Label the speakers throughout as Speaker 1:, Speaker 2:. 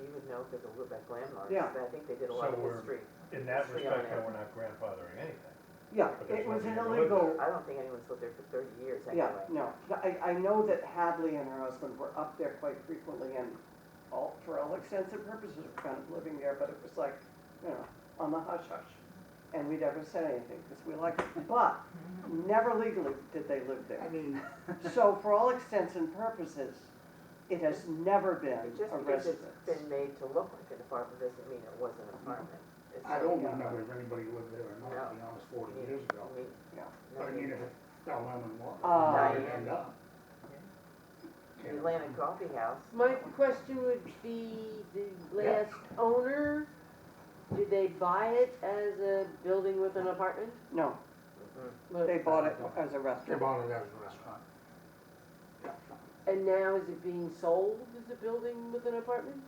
Speaker 1: you would know because of Lubec landmarks,
Speaker 2: Yeah.
Speaker 1: but I think they did a
Speaker 3: So
Speaker 1: lot of
Speaker 3: we're-
Speaker 1: history.
Speaker 3: In that
Speaker 1: Three on
Speaker 3: respect,
Speaker 1: there.
Speaker 3: then we're not grandfathering anything.
Speaker 2: Yeah,
Speaker 3: But there's
Speaker 2: it was an
Speaker 3: nobody to live
Speaker 2: illegal,
Speaker 1: I don't think anyone's lived there for thirty years
Speaker 2: yeah,
Speaker 1: anyway.
Speaker 2: no. I, I know that Hadley and her husband were up there quite frequently and all, for all extents and purposes, were kind of living there, but it was like, you know, on the hush hush. And we never said anything because we liked it, but never legally did they live there.
Speaker 4: I mean,
Speaker 2: So for all extents and purposes, it has never been
Speaker 1: It Just
Speaker 2: a
Speaker 1: because
Speaker 2: residence.
Speaker 1: it's been made to look like an apartment doesn't mean it was an
Speaker 2: Mm-hmm.
Speaker 1: apartment. It's
Speaker 4: I
Speaker 1: like,
Speaker 4: don't
Speaker 1: uh,
Speaker 4: remember if anybody lived there or not, to be honest, forty
Speaker 1: you-
Speaker 4: years ago.
Speaker 1: you mean-
Speaker 2: Yeah.
Speaker 1: no,
Speaker 4: But I mean, if it fell down in water,
Speaker 2: Uh,
Speaker 4: where did it end up?
Speaker 1: The Atlanta Coffee House,
Speaker 5: My question would be, the
Speaker 4: Yeah.
Speaker 5: last owner, did they buy it as a building with an apartment?
Speaker 2: No,
Speaker 1: Mm-hmm.
Speaker 5: Look,
Speaker 2: they bought it as a
Speaker 4: They
Speaker 2: restaurant.
Speaker 4: bought it as a restaurant.
Speaker 5: And now is it being sold as a building with an apartment?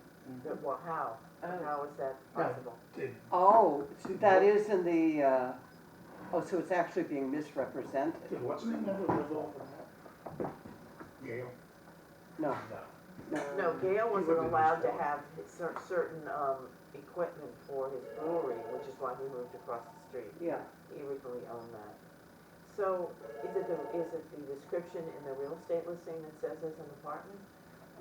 Speaker 1: the- well, how,
Speaker 5: Oh,
Speaker 1: how is that possible?
Speaker 4: Did,
Speaker 2: Oh, that is in the, uh, oh, so it's actually being misrepresented.
Speaker 4: did what's the name of it live off of that? Gail,
Speaker 2: No,
Speaker 3: No.
Speaker 2: no.
Speaker 1: No, Gail wasn't
Speaker 4: lived in
Speaker 1: allowed to
Speaker 4: Eastport.
Speaker 1: have cer- certain, um, equipment for his brewery, which is why he moved across the street.
Speaker 2: Yeah,
Speaker 1: He originally owned that. So is it the, is it the description in the real estate listing that says it's an apartment?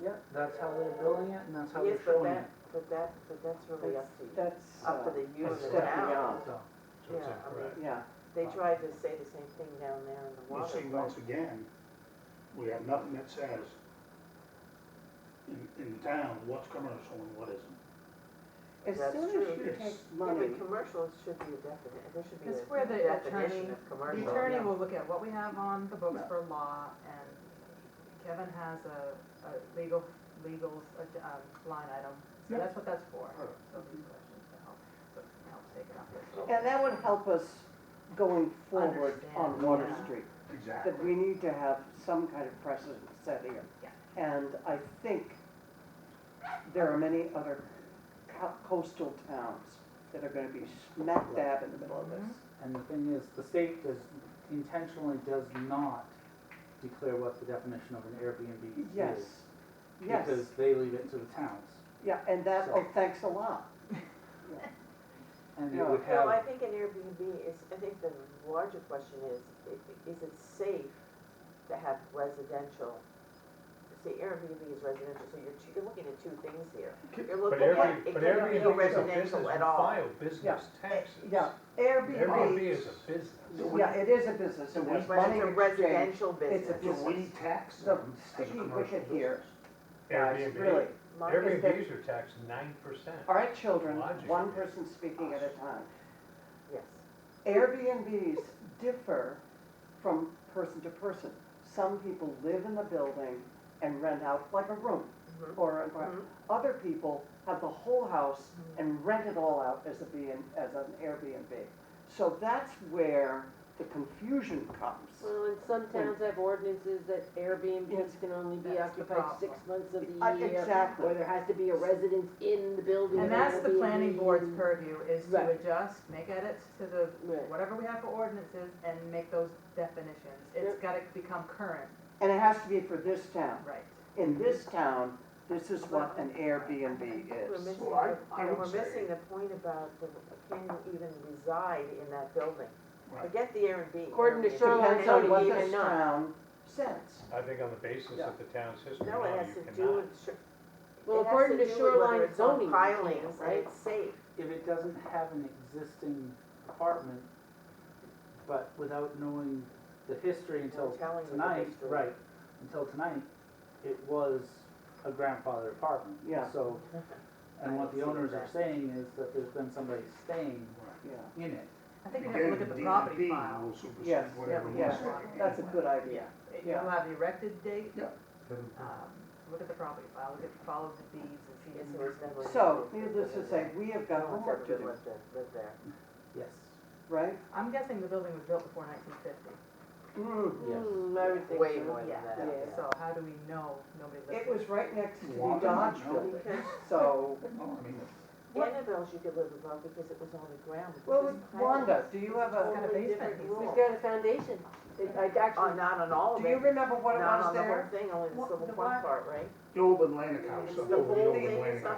Speaker 6: Yep, that's how they're building it and that's how
Speaker 1: Yes,
Speaker 6: they're
Speaker 1: but
Speaker 6: showing it.
Speaker 1: that, but that, but that's really up to you,
Speaker 2: that's,
Speaker 1: up
Speaker 2: uh,
Speaker 1: to the you and the
Speaker 3: That's
Speaker 2: stepping
Speaker 1: town.
Speaker 2: out.
Speaker 4: so,
Speaker 3: So it's
Speaker 1: Yeah, I mean-
Speaker 3: incorrect.
Speaker 2: yeah,
Speaker 1: They tried to say the same thing down there in the
Speaker 4: you
Speaker 1: water.
Speaker 4: see, once again, we have nothing that says in, in town, what's commercial and what isn't.
Speaker 2: as
Speaker 1: That's
Speaker 2: soon as
Speaker 1: true.
Speaker 2: you
Speaker 4: It's-
Speaker 2: take
Speaker 1: Yeah,
Speaker 2: money,
Speaker 1: but commercial should be a definite, there should be
Speaker 7: That's
Speaker 1: a
Speaker 7: where the
Speaker 1: definition
Speaker 7: attorney-
Speaker 1: of
Speaker 7: The
Speaker 1: commercial.
Speaker 7: attorney
Speaker 4: yeah.
Speaker 7: will look at what we have on the books
Speaker 4: Yeah.
Speaker 7: for law, and Kevin has a, a legal, legals, uh, um, line item, so
Speaker 4: Yeah.
Speaker 7: that's what that's for.
Speaker 4: Sure.
Speaker 7: So these questions can help, so it can help take it up.
Speaker 2: and that would help us going forward on
Speaker 7: Understand,
Speaker 2: Water
Speaker 7: yeah.
Speaker 2: Street.
Speaker 4: Exactly.
Speaker 2: that we need to have some kind of precedent set here.
Speaker 7: Yeah.
Speaker 2: And I think there are many other co- coastal towns that are gonna be smack dab in the middle of this.
Speaker 6: And the thing is, the state does, intentionally does not declare what the definition of an Airbnb is.
Speaker 2: Yes, yes,
Speaker 6: Mm-hmm. Because they leave it to the towns.
Speaker 2: yeah, and that, oh, thanks a lot.
Speaker 6: And it
Speaker 2: Yeah.
Speaker 6: would
Speaker 1: Well, I
Speaker 6: have,
Speaker 1: think an Airbnb is, I think the larger question is, i- is it safe to have residential? See, Airbnb is residential, so you're, two- you're looking at two things here. You're
Speaker 3: But
Speaker 1: looking at,
Speaker 3: Airbnb,
Speaker 1: it couldn't
Speaker 3: but
Speaker 1: be a
Speaker 3: Airbnb is a business,
Speaker 1: residential
Speaker 3: you
Speaker 1: at all.
Speaker 3: file business taxes.
Speaker 2: Eh, Yeah, Airbnb,
Speaker 3: Airbnb is a business.
Speaker 2: yeah, it is a business, and
Speaker 4: But
Speaker 2: there's
Speaker 4: it's
Speaker 1: But
Speaker 2: money
Speaker 1: it's a
Speaker 2: exchange.
Speaker 1: residential
Speaker 2: It's a
Speaker 1: business.
Speaker 4: Do we tax
Speaker 2: The
Speaker 4: them as a
Speaker 2: gee,
Speaker 4: commercial
Speaker 2: wicked here.
Speaker 4: business?
Speaker 2: Guys, really,
Speaker 3: Airbnb,
Speaker 1: Mark is the-
Speaker 3: Airbnbs are taxed nine percent.
Speaker 2: all right, children,
Speaker 3: Logic.
Speaker 2: one person speaking at a time.
Speaker 1: Yes,
Speaker 2: Airbnbs differ from person to person. Some people live in the building and rent out like a room
Speaker 1: Mhm.
Speaker 2: or, an apart-
Speaker 1: Mhm.
Speaker 2: other people have the whole house and rent it all out as a B and, as an Airbnb. So that's where the confusion comes.
Speaker 5: Well, and some towns have ordinances that
Speaker 2: Yes.
Speaker 5: Airbnbs can only be
Speaker 7: That's the
Speaker 5: occupied six months of
Speaker 2: Uh,
Speaker 5: the year.
Speaker 2: Exactly.
Speaker 5: Or there has to be a residence in the building.
Speaker 7: And
Speaker 5: or
Speaker 7: that's the planning
Speaker 5: Airbnb.
Speaker 7: board's purview, is to
Speaker 5: Right.
Speaker 7: adjust, make edits to the,
Speaker 5: Right.
Speaker 7: whatever we have for ordinances, and make those definitions. It's gotta become current,
Speaker 2: And it has to be for this town.
Speaker 7: right.
Speaker 2: In this town, this is what an Airbnb
Speaker 1: we're
Speaker 2: is.
Speaker 1: missing,
Speaker 4: Well, I-
Speaker 1: the-
Speaker 4: I
Speaker 1: and
Speaker 4: would
Speaker 1: we're
Speaker 4: say-
Speaker 1: missing the point about the, can you even reside in that building?
Speaker 4: Right.
Speaker 1: Forget the Airbnb.
Speaker 5: According to
Speaker 1: Airbnb.
Speaker 5: Shoreline
Speaker 2: Depends on
Speaker 5: Zoning
Speaker 2: what
Speaker 5: even
Speaker 2: this
Speaker 5: not.
Speaker 2: town says.
Speaker 3: I think on the basis
Speaker 2: Yeah.
Speaker 3: of the town's history,
Speaker 1: No,
Speaker 3: no,
Speaker 1: it has
Speaker 3: you
Speaker 1: to do
Speaker 3: cannot.
Speaker 1: with, sh-
Speaker 5: Well,
Speaker 1: it has
Speaker 5: according to
Speaker 1: do with whether
Speaker 5: shoreline
Speaker 1: it's on
Speaker 5: zoning, you
Speaker 1: Pilings,
Speaker 5: can't,
Speaker 1: and
Speaker 5: right?
Speaker 1: it's safe.
Speaker 6: if it doesn't have an existing apartment, but without knowing the history until
Speaker 1: telling you the
Speaker 6: tonight,
Speaker 1: history.
Speaker 6: right, until tonight, it was a grandfather apartment.
Speaker 2: Yeah.
Speaker 6: So, and what the
Speaker 1: I see
Speaker 6: owners are
Speaker 1: that.
Speaker 6: saying is that there's been somebody staying
Speaker 2: Yeah,
Speaker 6: in it.
Speaker 7: I think we have to look at the
Speaker 4: Again,
Speaker 7: property
Speaker 4: DEP
Speaker 7: file.
Speaker 4: will supersede
Speaker 2: Yes,
Speaker 4: whatever we
Speaker 2: yeah,
Speaker 4: say.
Speaker 2: that's a good idea. Oh, Yeah.
Speaker 7: You'll have the erected date,
Speaker 4: Yeah.
Speaker 7: um, look at the property file, look at, follow the deeds and see.
Speaker 1: Yes, it was never.
Speaker 2: So, needless to say, we have got
Speaker 1: No one's ever
Speaker 2: homework to do,
Speaker 1: lived there- lived there.
Speaker 6: Yes.
Speaker 2: right?
Speaker 7: I'm guessing the building was built before nineteen fifty,
Speaker 2: Mm.
Speaker 6: Yes.
Speaker 5: Hmm, I would think
Speaker 1: Way
Speaker 5: so.
Speaker 1: more than
Speaker 7: Yeah.
Speaker 1: that.
Speaker 2: Yeah.
Speaker 1: yeah.
Speaker 7: so how do we know nobody lived there?
Speaker 2: It was right next to the
Speaker 4: Water,
Speaker 2: Dodge
Speaker 4: no.
Speaker 2: building,
Speaker 1: Because
Speaker 2: so,
Speaker 4: No, I mean,
Speaker 1: What? Annabelle's you could live above because it was on the ground. but
Speaker 2: well,
Speaker 1: this
Speaker 2: with
Speaker 1: pilot
Speaker 2: Wanda, do you have
Speaker 1: was
Speaker 2: a,
Speaker 7: got a
Speaker 1: totally
Speaker 7: basement,
Speaker 1: different
Speaker 7: he's
Speaker 1: rule.
Speaker 5: It's got a foundation. It, I
Speaker 1: Uh,
Speaker 5: actually,
Speaker 1: not on all of
Speaker 2: do you
Speaker 1: it,
Speaker 2: remember what it
Speaker 1: not
Speaker 2: was
Speaker 1: on the
Speaker 2: there?
Speaker 1: whole thing, only the
Speaker 7: What-
Speaker 1: civil
Speaker 7: the
Speaker 1: one
Speaker 7: what?
Speaker 1: part, right?
Speaker 4: The old Atlantic house,
Speaker 1: It's
Speaker 4: the
Speaker 1: the
Speaker 4: old
Speaker 1: whole
Speaker 4: old
Speaker 1: thing, it's
Speaker 4: Atlantic
Speaker 1: not
Speaker 4: house.